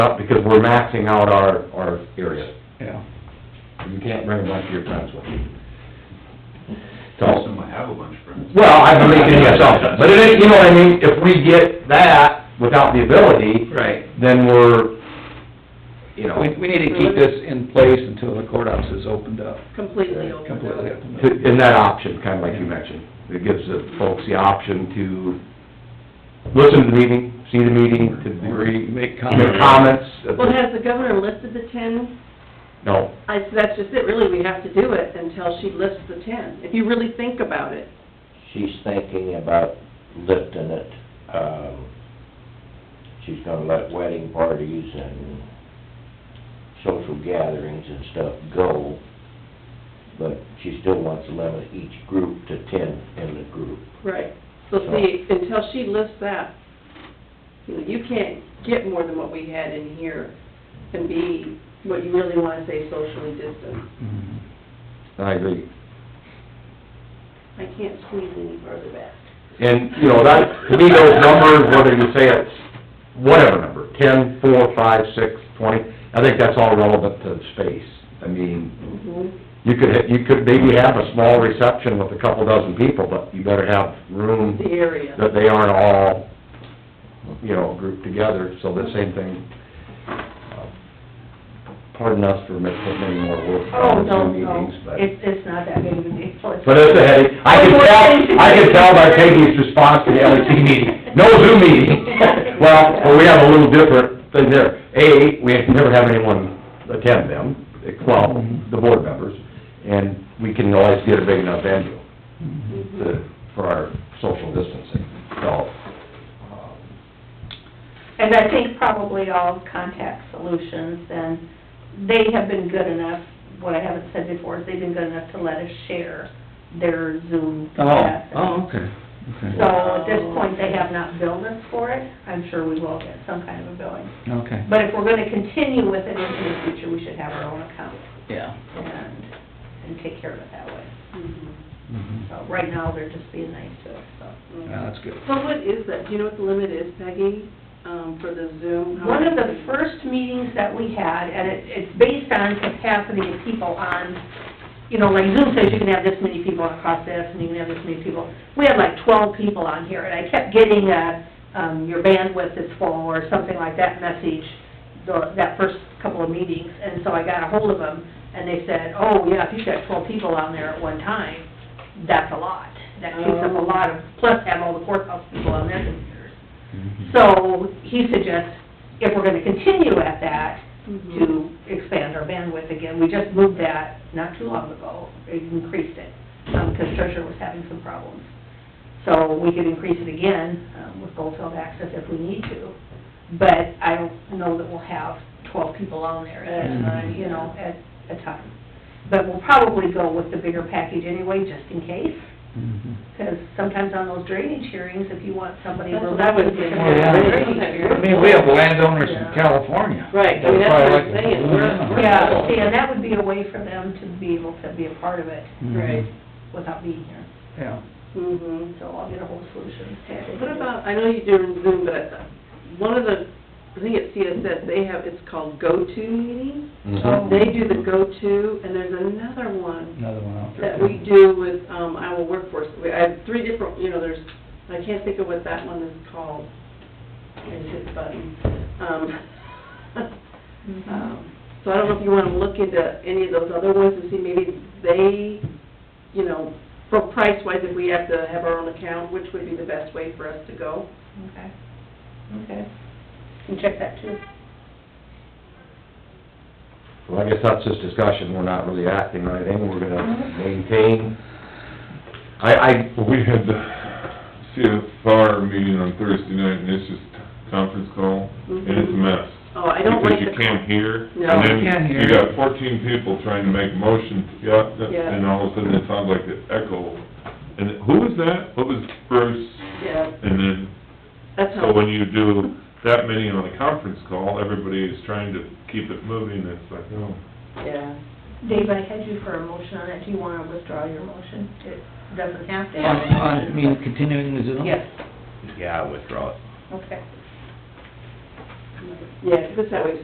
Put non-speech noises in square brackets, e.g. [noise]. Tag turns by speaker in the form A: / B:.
A: up because we're maxing out our, our area.
B: yeah.
A: You can't bring a bunch of your friends with you.
C: Most of
A: So,
C: them have a bunch of friends.
A: well, I believe in yourself, but it is, you know what I mean, if we get that without the ability,
B: Right.
A: then we're, you know,
B: We, we need to keep this in place until the courthouse is opened up,
D: completely opened up.
B: completely opened
A: to-
B: up.
A: in that option, kinda like you mentioned. It gives the folks the option to listen to the meeting, see the meeting, to degree,
B: Make
A: make
B: comments.
A: comments.
D: Well, has the governor listed the ten?
A: No,
D: I, that's just it, really, we have to do it until she lists the ten, if you really think about it.
E: She's thinking about lifting it, um, she's gonna let wedding parties and social gatherings and stuff go, but she still wants to limit each group to ten in the group.
D: Right. So see, until she lists that, you know, you can't get more than what we had in here and be what you really wanna say socially distant.
B: Mhm.
A: I agree.
D: I can't squeeze any further back.
A: And, you know, that, to me, those numbers, whether you say it's whatever number, ten, four, five, six, twenty, I think that's all relevant to the space. I mean,
D: Mhm.
F: Mm-hmm.
A: you could, you could maybe have a small reception with a couple dozen people, but you better have room
D: The area.
A: that they aren't all, you know, grouped together, so the same thing. uh, Pardon us for making many more work
F: Oh,
A: on the
F: no,
A: Zoom
F: no,
A: meetings, but.
F: it's, it's not that big of a deal. Oh,
A: But it's a headache. I can
F: [laughs]
A: tell, I can tell by Peggy's response to the LEC meeting, no Zoom meeting. Well, well, we have a little different thing there. A, we never have anyone attend them, well, the board members, and we can always get a big enough venue to, for our social distancing, so. um,
F: And I think probably all of Contact Solutions, and they have been good enough, what I haven't said before, is they've been good enough to let us share their Zoom
B: Oh,
F: classes.
B: oh, okay,
F: So
B: okay,
F: at this point, they have not billed us for it. I'm sure we will get some kind of a billing.
B: okay,
F: But if we're gonna continue with it into the future, we should have our own account
B: yeah.
F: and, and take care of it that way.
D: Mhm.
B: Mhm.
F: So right now, they're just being nice to us, so.
A: Uh,
B: Yeah, that's good.
D: So what is that? Do you know what the limit is, Peggy, um, for the Zoom? How
F: One of
D: many-
F: the first meetings that we had, and it, it's based on capacity of people on, you know, like Zoom says you can have this many people across this, and you can have this many people. We had like twelve people on here, and I kept getting a, um, your bandwidth is full, or something like that message, the, that first couple of meetings, and so I got a hold of them, and they said, oh, yeah, if you've got twelve people on there at one time, that's a lot. That takes up a lot of, plus have all the courthouse people on their computers. So he suggests, if we're gonna continue at that,
D: Mhm.
F: to expand our bandwidth again, we just moved that not too long ago, It increased it, um, because Treasurer was having some problems. So we could increase it again, um, with Goldfield access if we need to, but I don't know that we'll have twelve people on there at a time, you know, at a time. But we'll probably go with the bigger package anyway, just in case.
B: Mhm.
F: Because sometimes on those drainage hearings, if you want somebody
D: That's
F: real
D: what I was thinking.
B: Oh, yeah. I mean, we have landowners in
F: Yeah.
B: California.
D: Right, I mean, that's what I'm
B: That's
D: saying,
B: why I
D: we're,
B: like-
D: we're.
F: Yeah, see, and that would be a way for them to be able to be a part of it
B: Mhm.
D: Right.
F: without being here.
B: Yeah.
D: Mhm.
F: So I'll get a whole solution.
D: What about, I know you do in Zoom, but I- one of the, I think at CSS, they have, it's called GoTo Meeting.
A: mhm.
D: They do the GoTo, and there's another one
B: Another one out there.
D: that we do with, um, Iowa Workforce. We, I have three different, you know, there's, I can't think of what that one is called. I just hit the button. [laughs] Um, Um, So I don't know if you want to look into any of those other ones and see maybe they, you know, for price-wise, if we have to have our own account, which would be the best way for us to go?
F: Okay, okay. Can check that too.
A: Well, I guess that's just discussion, we're not really acting on anything, we're gonna maintain. I, I,
G: Well, we had the CFR meeting on Thursday night, and it's just conference call, and it's a mess.
D: Oh, I don't like
G: Because you
D: the...
G: can't hear,
D: No.
G: and then
B: You can't hear.
G: you got fourteen people trying to make motions, yeah, that-
D: Yeah.
G: and all of a sudden it sounds like an echo. And who was that? What was Bruce?
D: Yeah,
G: And then,
D: that's
G: so
D: how,
G: when you do that many on a conference call, everybody is trying to keep it moving, it's like, oh.
D: yeah.
F: Dave, I had you for a motion on it. Do you want to withdraw your motion? It doesn't have to
B: On,
F: have a
B: on,
F: motion.
B: you mean continuing the Zoom?
F: Yes,
E: Yeah, I withdraw it.
F: okay.
D: Yeah, 'cause it's that way